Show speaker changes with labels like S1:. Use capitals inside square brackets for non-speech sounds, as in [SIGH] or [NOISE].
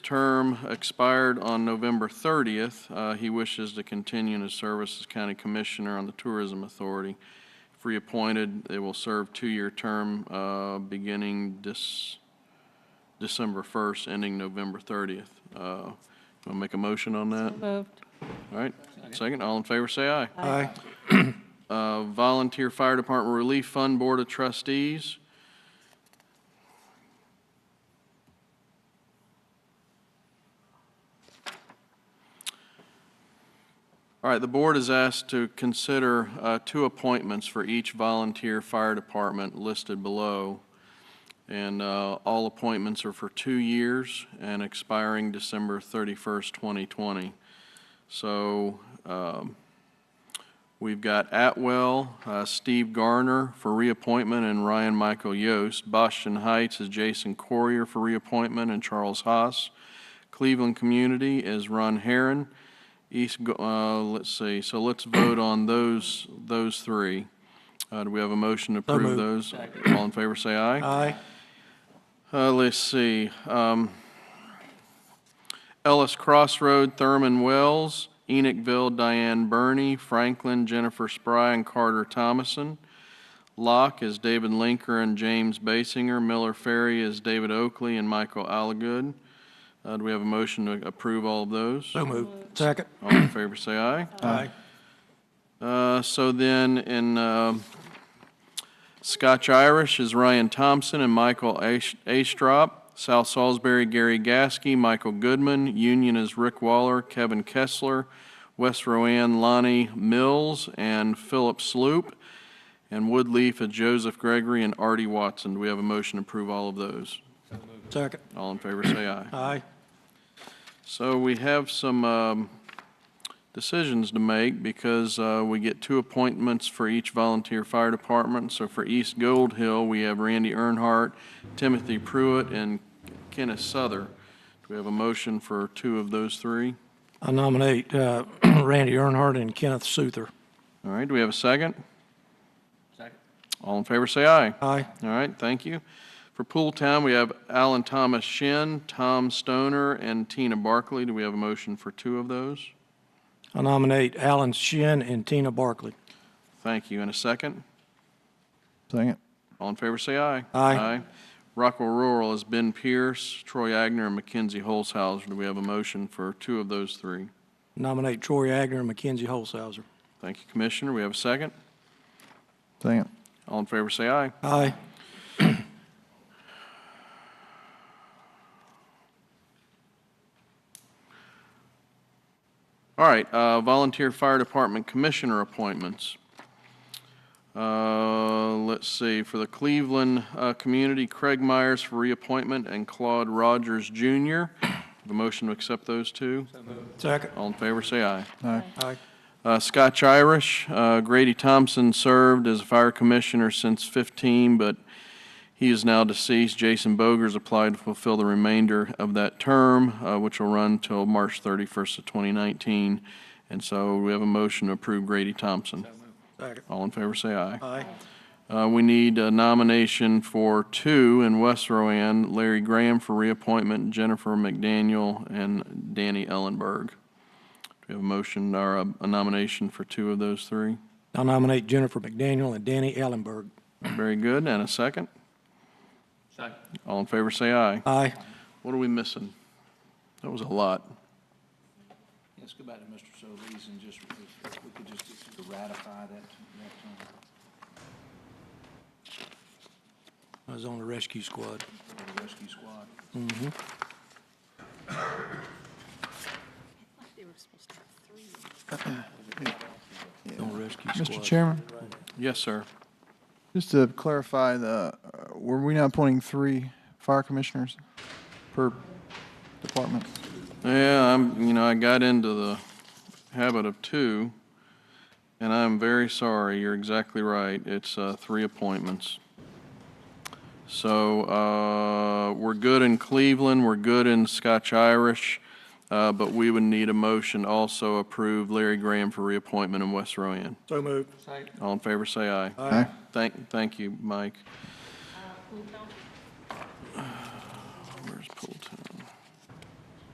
S1: term expired on November 30th. Uh, He wishes to continue in his service as County Commissioner on the Tourism Authority. If reappointed, they will serve two-year term uh, beginning this December 1st, ending November 30th. Want to make a motion on that?
S2: Moved.
S1: All right, second, all in favor, say aye.
S3: Aye.
S1: [CLEARS THROAT] Uh, Volunteer Fire Department Relief Fund Board of Trustees. All right, the board is asked to consider uh, two appointments for each volunteer fire department listed below. And uh, all appointments are for two years and expiring December 31st, 2020. So um, We've got Atwell, uh, Steve Garner for reappointment, and Ryan Michael Yost. Boston Heights is Jason Corrier for reappointment, and Charles Haas. Cleveland Community is Ron Heron. East, Go- uh, let's see, so let's vote on those, those three. Uh, Do we have a motion to approve
S3: moved.
S1: those? All in favor, say aye.
S3: Aye.
S1: Uh, let's see, um, Ellis Crossroad, Thurman Wells, Enochville, Diane Burney, Franklin, Jennifer Spry, and Carter Thomason. Locke is David Linker and James Basinger. Miller Ferry is David Oakley and Michael Alagood. Uh, do we have a motion to approve all of those?
S3: So moved. Second.
S1: All in favor, say aye.
S3: Aye.
S1: Uh, So then, in um, Scotch Irish is Ryan Thompson and Michael Ash- Astrop. South Salisbury, Gary Gasky, Michael Goodman. Union is Rick Waller, Kevin Kessler. West Rowan, Lonnie Mills, and Philip Sloop. And Woodleaf is Joseph Gregory and Artie Watson. Do we have a motion to approve all of those?
S3: Second.
S1: All in favor, say aye.
S3: Aye.
S1: So we have some um, decisions to make because uh, we get two appointments for each volunteer fire department. So for East Gold Hill, we have Randy Earnhardt, Timothy Pruitt, and Kenneth Souther. Do we have a motion for two of those three?
S3: I nominate uh, [CLEARS THROAT] Randy Earnhardt and Kenneth Souther.
S1: All right, do we have a second? Second. All in favor, say aye.
S3: Aye.
S1: All right, thank you. For Pool Town, we have Alan Thomas Shin, Tom Stoner, and Tina Barkley. Do we have a motion for two of those?
S3: I nominate Alan Shin and Tina Barkley.
S1: Thank you. And a second?
S4: Second.
S1: All in favor, say aye.
S3: Aye.
S1: Rockwell Rural is Ben Pierce, Troy Agner, and Mackenzie Holzhauser. Do we have a motion for two of those three?
S3: Nominate Troy Agner and Mackenzie Holshouser.
S1: Thank you, Commissioner. We have a second.
S4: Second.
S1: All in favor, say aye.
S3: Aye.
S1: All right, uh, volunteer fire department commissioner appointments. Uh, Let's see, for the Cleveland uh, Community, Craig Myers for reappointment and Claude Rogers Jr. [COUGHS] Have a motion to accept those two?
S3: Second.
S1: All in favor, say aye.
S4: Aye.
S3: Aye.
S1: Uh, Scotch Irish, uh, Grady Thompson served as a fire commissioner since 15, but he is now deceased. Jason Bogers applied to fulfill the remainder of that term, uh, which will run till March 31st of 2019. And so we have a motion to approve Grady Thompson.
S3: Second.
S1: All in favor, say aye.
S3: Aye.
S1: Uh, We need a nomination for two in West Rowan, Larry Graham for reappointment, Jennifer McDaniel, and Danny Ellenberg. Do we have a motion or a- a nomination for two of those three?
S3: I nominate Jennifer McDaniel and Danny Ellenberg.
S1: Very good, and a second? Second. All in favor, say aye.
S3: Aye.
S1: What are we missing? That was a lot.
S5: Let's go back to Mr. Solis and just, if we could just ratify that, that, uh,
S3: I was on the rescue squad.
S5: uh, for the rescue squad.
S3: On the rescue squad.
S4: Mr. Chairman,
S1: Yes, sir.
S4: just to clarify, the, uh, were we now appointing three fire commissioners per department?
S1: Yeah, I'm, you know, I got into the habit of two, and I'm very sorry. You're exactly right. It's uh, three appointments. So uh, we're good in Cleveland, we're good in Scotch Irish, uh, but we would need a motion to also approve Larry Graham for reappointment in West Rowan.
S3: So moved.
S1: All in favor, say aye.
S5: Uh,
S4: Aye.
S1: Thank, thank you, Mike. Where's Pooltown?